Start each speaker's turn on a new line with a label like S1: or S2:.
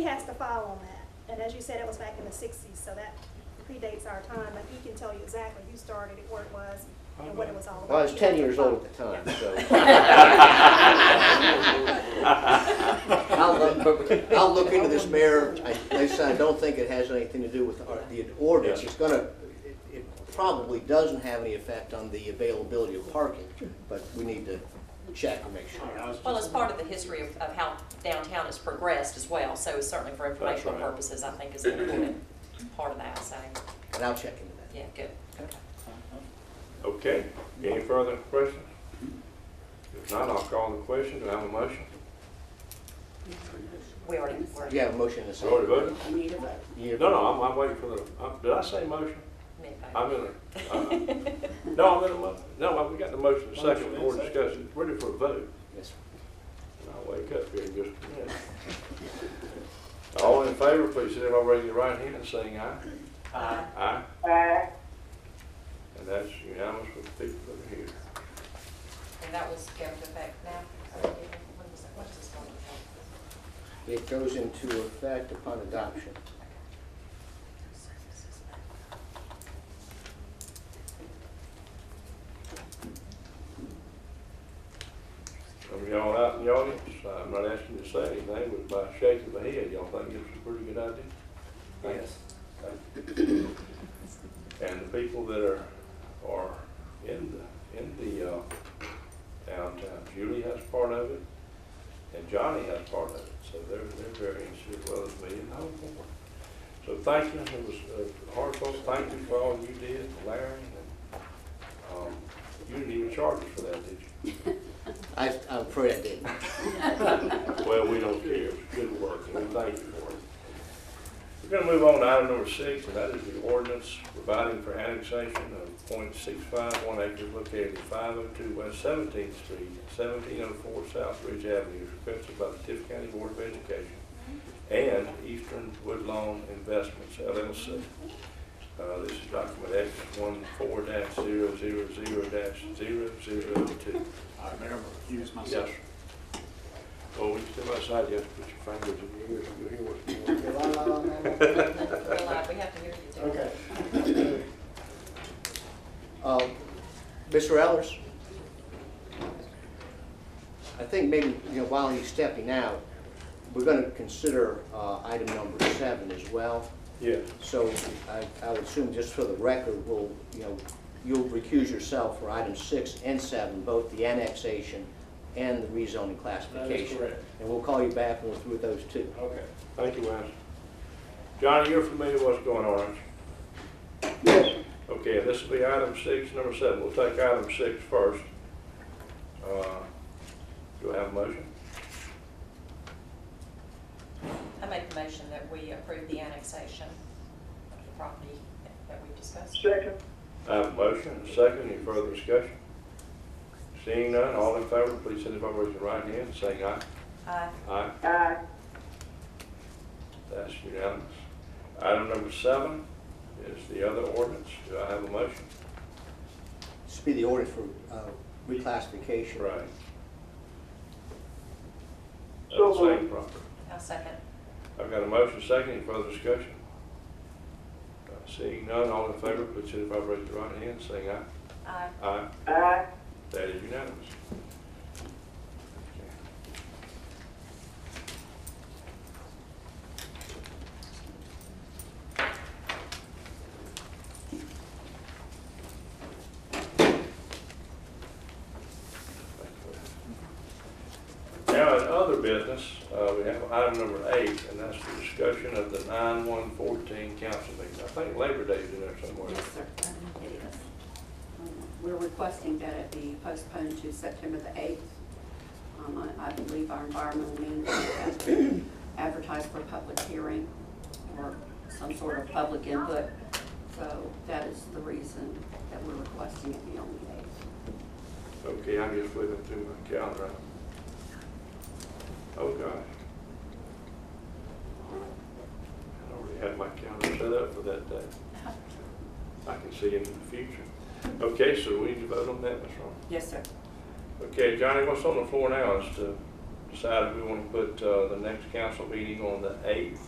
S1: He has to file on that, and as you said, it was back in the sixties, so that predates our time, but he can tell you exactly who started it, where it was, and what it was all about.
S2: Well, I was
S1: He
S2: ten
S1: has to
S2: years
S1: file.
S2: old at the time, so. I'll look,
S3: I'll
S2: I'll look into this, Mayor. I, listen, I don't think it has anything to do with our- the ordinance. It's gonna, it- it probably doesn't have any effect on the availability of parking, but we need to check and make sure.
S4: Well, it's part of the history of, of how downtown has progressed as well, so it's certainly for informational
S3: right.
S4: purposes, I think is an important part of that, so,
S2: And I'll check into that.
S4: yeah, good.
S3: Okay, any further questions? If not, I'll call the question, do I have a motion?
S4: We already, we
S2: Do you
S4: already
S2: have a motion to
S3: You already voted?
S2: second?
S5: You need a vote.
S2: You-
S3: No, no, I'm, I'm waiting for the, I'm- did I say motion?
S4: made
S3: I'm
S4: that.
S3: in a, uh, no, I'm in a, mo- no, uh, we got the motion and second, more discussion, ready for a vote.
S2: Yes, sir.
S3: And I'll wake up here in just a minute. All in favor, please signify by raising your right hand and saying aye.
S4: Uh,
S3: Aye. And that's unanimous with the people that are here.
S4: And that was going to effect now? When was that? What's this going to
S2: It
S4: affect?
S2: goes into effect upon adoption.
S3: Some of y'all out in the audience, I'm not asking you to say anything, but by shaking my head, y'all think it's a pretty good idea? Yes. And the people that are, are in the, in the uh, downtown, Julie has part of it, and Johnny has part of it, so they're, they're very interested, as well as me and the whole board. So thank you, it was uh, heartfelt, thank you for all you did, Larry, and, um, you didn't even charge us for that, did you?
S2: I, I'm afraid I didn't.
S3: Well, we don't care, it's good work, and we thank you for it. We're gonna move on to item number six, and that is the ordinance providing for annexation of point six five one acres located at five oh two West Seventeenth Street, seventeen oh four South Ridge Avenue, as requested by the Tiff County Board of Education and Eastern Woodlawn Investments LLC. Uh, this is document X one four dash zero zero zero dash zero zero two.
S6: I remember accused
S3: Yes.
S6: myself.
S3: Well, Oh, when you step outside, you have to put your fingers in your ears, you'll hear what's
S5: You're
S3: going
S5: lying on that one?
S4: We're live, we have to hear you too.
S5: Okay.
S2: Uh, Mr. Ellers? I think maybe, you know, while he's stepping out, we're going to consider uh, item number seven as well.
S3: Yes.
S2: So I I would assume just for the record, we'll, you know, you'll recuse yourself for items six and seven, both the annexation and the rezoning classification.
S6: correct.
S2: And we'll call you back when we're through with those two.
S6: Okay.
S3: Thank you, Wes. Johnny, you're familiar with what's going on, aren't you? Yes. Okay, this will be item six, number seven. We'll take item six first. Uh, Do I have a motion?
S4: I make the motion that we approve the annexation of the property that we discussed.
S3: I have a motion, and a second, any further discussion? Seeing none, all in favor, please signify by raising your right hand, saying aye.
S4: Aye.
S3: Aye. That's unanimous. Item number seven is the other ordinance. Do I have a motion?
S2: This would be the order for uh, reclassification.
S3: Right.
S7: So
S3: Of the same
S7: moved.
S3: property.
S4: I'll second.
S3: I've got a motion second, any further discussion? Uh, Seeing none, all in favor, please signify by raising your right hand, saying aye.
S4: Aye.
S3: Aye.
S7: Aye.
S3: That is unanimous. Now, in other business, uh, we have item number eight, and that's the discussion of the nine one fourteen council meeting. I think Labor Day is in there somewhere.
S8: Yes, sir, it is. Um, We're requesting that it be postponed to September the 8th. Um, I I believe our environmental manager has to advertise for a public hearing or some sort of public input. So that is the reason that we're requesting it be on the
S3: Okay, I'm just flipping through my calendar. Oh, gosh. I already had my calendar set up for that day. I can see into the future. Okay, so we need to vote on that, Ms. Ron.
S8: 8th. Yes, sir.
S3: Okay, Johnny, what's on the floor now is to decided we want to put uh, the next council meeting on the eighth